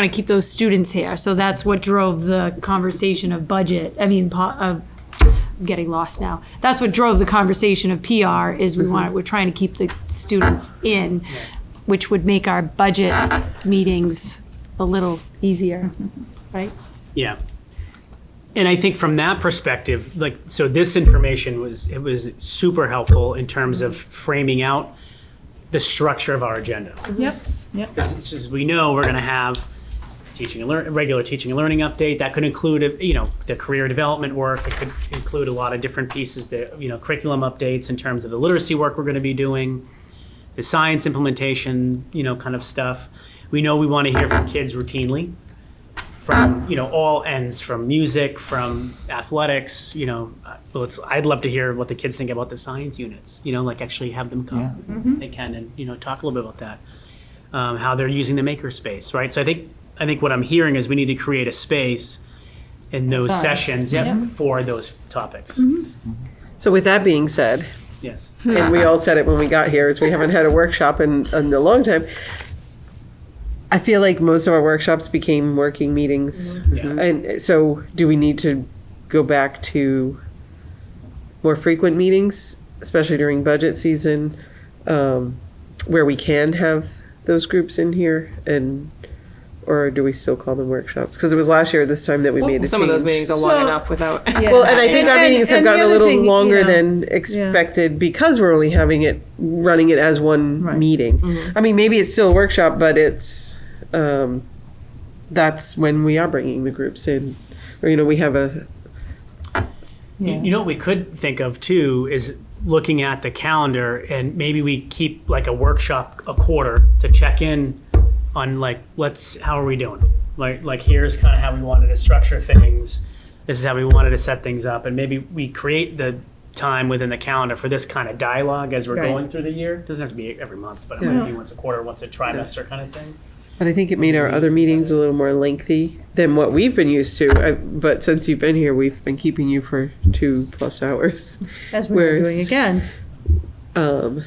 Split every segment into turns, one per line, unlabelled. want to keep those students here. So that's what drove the conversation of budget. I mean, po- of, I'm getting lost now. That's what drove the conversation of PR is we want, we're trying to keep the students in, which would make our budget meetings a little easier, right?
Yeah. And I think from that perspective, like, so this information was, it was super helpful in terms of framing out the structure of our agenda.
Yep,
Because as we know, we're going to have teaching and learn, regular teaching and learning update. That could include, you know, the career development work. It could include a lot of different pieces that, you know, curriculum updates in terms of the literacy work we're going to be doing, the science implementation, you know, kind of stuff. We know we want to hear from kids routinely from, you know, all ends, from music, from athletics, you know. uh, Well, it's, I'd love to hear what the kids think about the science units, you know, like actually have them come. if They can and, you know, talk a little bit about that um, how they're using the makerspace, right? So I think I think what I'm hearing is we need to create a space in those
Time.
sessions yep,
Yeah. Mm-hmm.
for those topics.
So with that being said,
Yes.
and
Uh-huh.
we all said it when we got here, is we haven't had a workshop in, in a long time. I feel like most of our workshops became working meetings.
Mm-hmm.
Yeah.
And so do we need to go back to more frequent meetings, especially during budget season, um, where we can have those groups in here and, or do we still call them workshops? Because it was last year at this time that we made a
Some of those
change.
meetings are long
So-
enough without.
Well, and I think our
And-
meetings have
and the
gotten a
other
little
thing, you
longer
know,
than expected because we're only having it, running it as one
Right. Mm-hmm.
meeting. I mean, maybe it's still a workshop, but it's, um, that's when we are bringing the groups in. Or, you know, we have a,
You, you know what we could think of too is looking at the calendar and maybe we keep like a workshop a quarter to check in on like let's how are we doing? Like like here's kind of how we wanted to structure things. This is how we wanted to set things up and maybe we create the time within the calendar for this kind of dialogue as we're
Right.
going through the year. doesn't have to be every month, but it might be once a quarter, once a trimester kind of thing.
but I think it made our other meetings a little more lengthy than what we've been used to. I, but since you've been here, we've been keeping you for two plus hours.
as we're doing
Whereas-
again.
Um,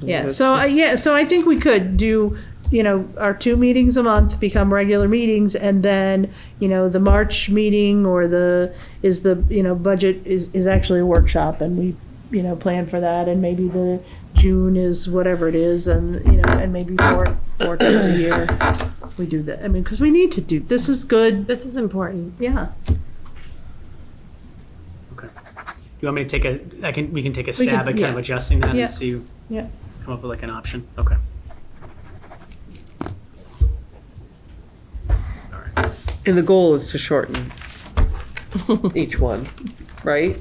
Yeah, so, I- yeah, so I think we could do, you know, our two meetings a month become regular meetings, and then, you know, the March meeting or the, is the, you know, budget is, is actually a workshop, and we, you know, plan for that, and maybe the June is whatever it is, and, you know, and maybe four, four times a year, we do that, I mean, because we need to do, this is good,
This is important.
yeah,
You want me to take a I can we can take a stab
can-
at kind of
yeah.
adjusting that
Yeah.
and see
Yeah.
come up with like an option. Okay.
And the goal is to shorten each one, right?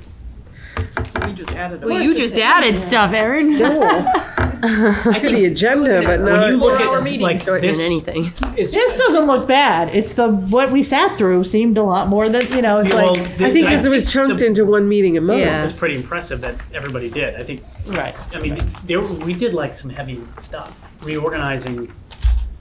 We just added
Well, you just added stuff, Erin.
No. to the agenda, but
When you
not.
look at like this,
anything.
is-
this doesn't look bad, it's the, what we sat through seemed a lot more than, you know, it's
well,
like,
the-
I think because it was chunked into one meeting a
Yeah.
month.
It's pretty impressive that everybody did. I think.
right.
I mean, there we did like some heavy stuff. Reorganizing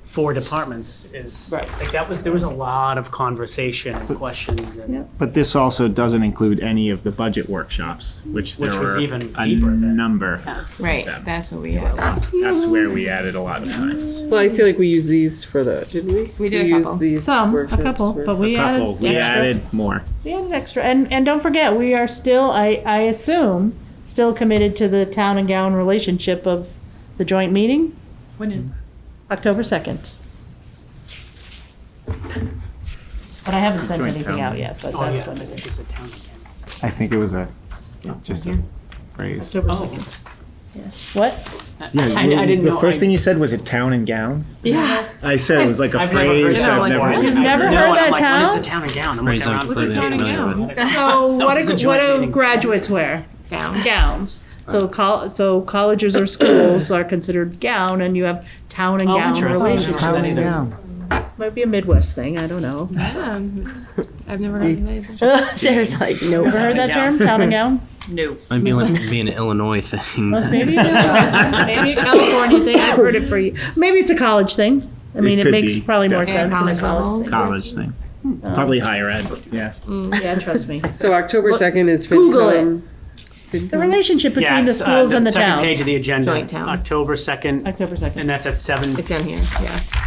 four departments is
Right.
like that was there was a lot of conversation and questions and
Yeah.
But this also doesn't include any of the budget workshops, which there
Which was
were
even
a
deeper than-
number.
Right, that's what we had.
That's where we added a lot of times.
Well, I feel like we used these for the, didn't we?
We did a
used
couple.
these
Some, a
workshops
couple,
for-
but we added
Couple, we
extra-
added more.
We added extra, and, and don't forget, we are still, I, I assume, still committed to the town and gown relationship of the joint meeting,
When is?
October second. But I haven't sent
Joint
anything
town.
out yet, but
oh
that's
yeah,
when
which
it is,
is a town again.
I think it was a, just a phrase.
October
Oh.
second. What?
Yeah,
I- I didn't
the
know,
first
I-
thing you said was a town and gown.
Yeah.
I said it was like a
I've never heard
phrase.
that
I've
before.
never.
You've
I-
never
no,
heard
and
that
I'm like, what is the
town?
town and gown? I'm like,
Phrase
around
I've heard
the
it,
table.
never
So what
was the
do,
joint
what do
meeting.
graduates wear?
Gown.
Gowns. So col, so colleges or schools are considered gown, and you have town and
Oh,
gown
interesting.
relationship.
Town and
gown.
Might be a Midwest thing, I don't know.
I've never heard anything.
Sarah's like, nope.
Ever heard that term, town and gown?
No.
Might be like being an Illinois thing.
Maybe it's a, maybe a California thing. I've heard it for you. Maybe it's a college thing. I mean,
It
it,
could
makes
be,
probably more
yeah.
sense than a
College level.
college
College thing. Probably higher ed, yeah.
thing. Yeah, trust me.
So October second is
Google it.
FinCom.
The relationship between
Yeah,
the
it's, uh,
schools and the
second
town.
page of the agenda,
Joint town.
October second,
October
and
second.
that's at seven
It's down here, yeah.